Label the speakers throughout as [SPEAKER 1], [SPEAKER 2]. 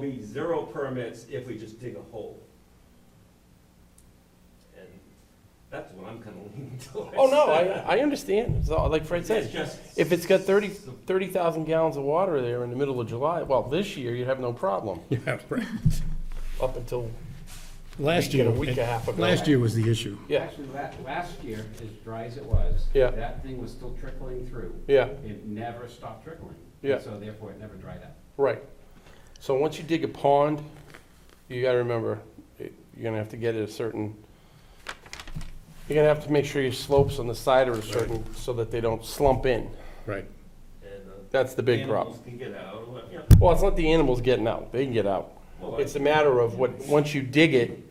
[SPEAKER 1] be zero permits if we just dig a hole. And that's what I'm kind of leaning towards.
[SPEAKER 2] Oh, no, I, I understand. So, like Fred
[SPEAKER 1] It's
[SPEAKER 2] said,
[SPEAKER 1] just.
[SPEAKER 2] if it's got 30 30,000 gallons of water there in the middle of July, well, this year, you'd have no problem,
[SPEAKER 3] Yeah, right.
[SPEAKER 2] up until
[SPEAKER 3] Last
[SPEAKER 2] Week
[SPEAKER 3] year,
[SPEAKER 2] and a week and a half ago.
[SPEAKER 3] last year was the issue.
[SPEAKER 2] Yeah.
[SPEAKER 4] Actually, last, last year, as dry as it was,
[SPEAKER 2] Yeah.
[SPEAKER 4] that thing was still trickling through.
[SPEAKER 2] Yeah.
[SPEAKER 4] It never stopped trickling.
[SPEAKER 2] Yeah.
[SPEAKER 4] So therefore, it never dried up.
[SPEAKER 2] Right. So once you dig a pond, you gotta remember, it- you're gonna have to get it a certain, you're gonna have to make sure your slopes on the side are a certain, so that they don't slump in.
[SPEAKER 3] Right.
[SPEAKER 1] and, uh,
[SPEAKER 2] That's the big
[SPEAKER 1] animals
[SPEAKER 2] problem.
[SPEAKER 1] Can get out, or what- yeah.
[SPEAKER 2] Well, it's not the animals getting out, they can get out.
[SPEAKER 1] Well,
[SPEAKER 2] It's a matter of what, once you dig it,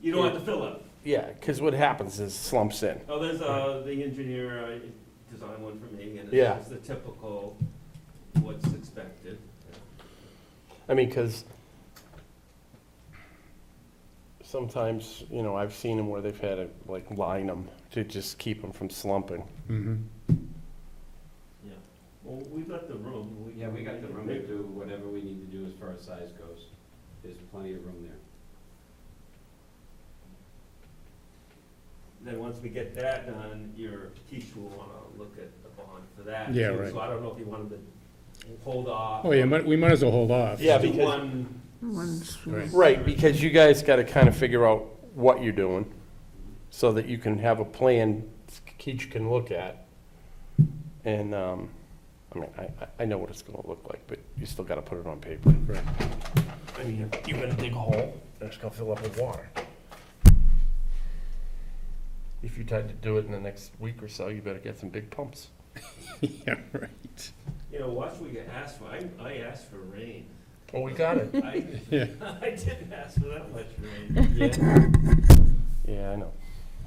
[SPEAKER 1] You don't have to fill up.
[SPEAKER 2] yeah, because what happens is slumps in.
[SPEAKER 1] Oh, there's, uh, the engineer, uh, designed one for me, and
[SPEAKER 2] Yeah.
[SPEAKER 1] it's just the typical, what's expected.
[SPEAKER 2] I mean, because sometimes, you know, I've seen them where they've had to like line them to just keep them from slumping.
[SPEAKER 3] Mhm.
[SPEAKER 1] Yeah. Well, we got the room.
[SPEAKER 4] Yeah, we got the room to
[SPEAKER 1] Maybe-
[SPEAKER 4] do whatever we need to do as far as size goes. There's plenty of room there.
[SPEAKER 1] Then once we get that done, your teacher will wanna look at the bond for that.
[SPEAKER 3] Yeah,
[SPEAKER 1] too.
[SPEAKER 3] right.
[SPEAKER 1] So I don't know if you wanted to hold off.
[SPEAKER 3] Oh, yeah, might- we might as well hold off.
[SPEAKER 2] Yeah,
[SPEAKER 1] Just do
[SPEAKER 2] because-
[SPEAKER 1] one-
[SPEAKER 3] Right.
[SPEAKER 2] Right, because you guys got to kind of figure out what you're doing so that you can have a plan each can look at. And, um, I mean, I, I- I know what it's going to look like, but you still got to put it on paper.
[SPEAKER 3] Right.
[SPEAKER 2] I mean, you're going to dig a hole, and it's going to fill up with water. If you tried to do it in the next week or so, you better get some big pumps.
[SPEAKER 3] Yeah, right.
[SPEAKER 1] You know, watch what you ask for. I, I asked for rain.
[SPEAKER 2] Oh, we got it.
[SPEAKER 1] I,
[SPEAKER 3] Yeah.
[SPEAKER 1] I didn't ask for that much rain. Yeah.
[SPEAKER 2] Yeah, I know.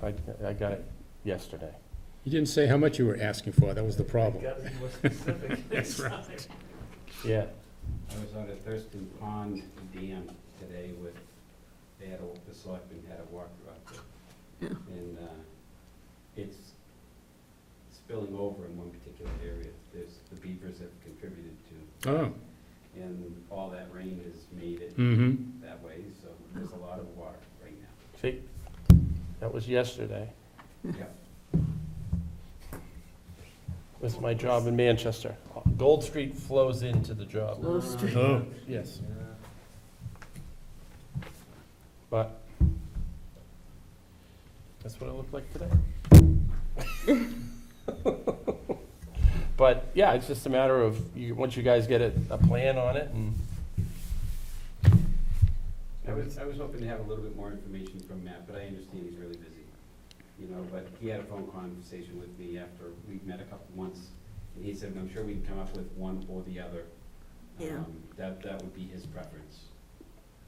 [SPEAKER 2] I, I got it yesterday.
[SPEAKER 3] You didn't say how much you were asking for, that was the problem.
[SPEAKER 1] Gotta be more specific.
[SPEAKER 3] That's right.
[SPEAKER 2] Yeah.
[SPEAKER 4] I was out at Thurston Pond Dam today with, they had a, the selectmen had a walk out there. And, uh, it's spilling over in one particular area. There's, the beavers have contributed to,
[SPEAKER 3] Oh,
[SPEAKER 4] and all that rain has made it
[SPEAKER 3] mm-hmm,
[SPEAKER 4] that way, so there's a lot of water right now.
[SPEAKER 2] See, that was yesterday.
[SPEAKER 4] Yeah.
[SPEAKER 2] It's my job in Manchester. Gold Street flows into the job,
[SPEAKER 3] oh,
[SPEAKER 2] yes.
[SPEAKER 1] Yeah.
[SPEAKER 2] But that's what it looked like today. But, yeah, it's just a matter of, you, once you guys get a, a plan on it and.
[SPEAKER 4] I was, I was hoping to have a little bit more information from Matt, but I understand he's really busy. You know, but he had a phone conversation with me after we met a couple months, and he said, I'm sure we can come up with one or the other.
[SPEAKER 5] Yeah.
[SPEAKER 4] Um, That, that would be his preference.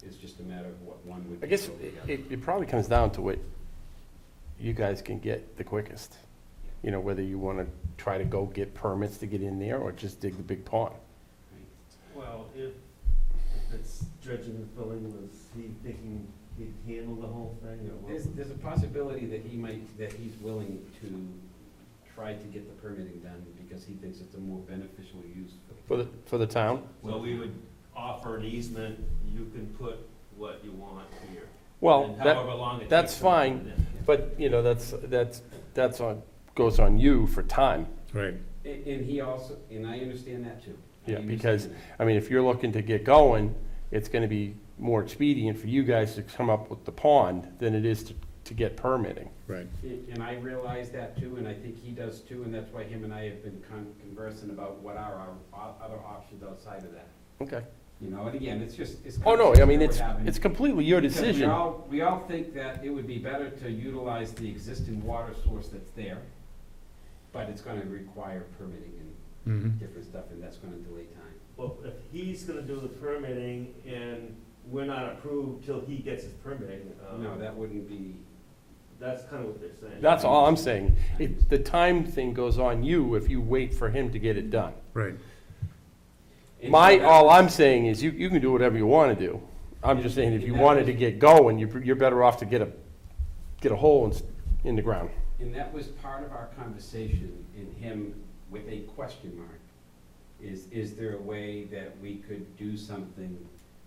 [SPEAKER 4] It's just a matter of what one would.
[SPEAKER 2] I guess
[SPEAKER 4] prefer
[SPEAKER 2] it,
[SPEAKER 4] over the other.
[SPEAKER 2] it it probably comes down to what you guys can get the quickest. You know, whether you wanna try to go get permits to get in there or just dig the big pond.
[SPEAKER 1] Well, if, if it's dredging and filling, was he thinking he'd handle the whole thing or
[SPEAKER 4] There's,
[SPEAKER 1] what?
[SPEAKER 4] there's a possibility that he might, that he's willing to try to get the permitting done because he thinks it's a more beneficial use for
[SPEAKER 2] For
[SPEAKER 4] the
[SPEAKER 2] the, for the town?
[SPEAKER 1] So we would offer an easement, you can put what you want here.
[SPEAKER 2] Well,
[SPEAKER 1] and
[SPEAKER 2] that,
[SPEAKER 1] however long it
[SPEAKER 2] that's
[SPEAKER 1] takes to put it
[SPEAKER 2] fine.
[SPEAKER 1] in.
[SPEAKER 2] but, you know, that's, that's, that's on, goes on you for time.
[SPEAKER 3] right,
[SPEAKER 4] And, and he also, and I understand that too. I
[SPEAKER 2] Yeah, because-
[SPEAKER 4] understand that.
[SPEAKER 2] I mean, if you're looking to get going, it's gonna be more expedient for you guys to come up with the pond than it is to, to get permitting.
[SPEAKER 3] right.
[SPEAKER 4] And and I realize that too, and I think he does too, and that's why him and I have been con- conversing about what are our o- other options outside of that.
[SPEAKER 2] Okay.
[SPEAKER 4] You know, and again, it's just, it's.
[SPEAKER 2] Oh, no, I mean,
[SPEAKER 4] we're
[SPEAKER 2] it's,
[SPEAKER 4] having.
[SPEAKER 2] it's completely your
[SPEAKER 4] Because
[SPEAKER 2] decision.
[SPEAKER 4] We all, we all think that it would be better to utilize the existing water source that's there, but it's gonna require permitting
[SPEAKER 3] Mm-hmm.
[SPEAKER 4] and different stuff, and that's gonna delay time.
[SPEAKER 1] Well, if he's gonna do the permitting and we're not approved till he gets his permitting,
[SPEAKER 4] No,
[SPEAKER 1] um,
[SPEAKER 4] that wouldn't be,
[SPEAKER 1] that's kind of what they're saying.
[SPEAKER 2] That's all I'm saying. It, the time thing goes on you if you wait for him to get it done.
[SPEAKER 3] Right,
[SPEAKER 4] and so
[SPEAKER 2] My,
[SPEAKER 4] that-
[SPEAKER 2] all I'm saying is you, you can do whatever you want to do. I'm just saying if you wanted to get going, you're, you're better off to get a, get a hole in, s- in the ground.
[SPEAKER 4] And that was part of our conversation in him with a question mark. Is, is there a way that we could do something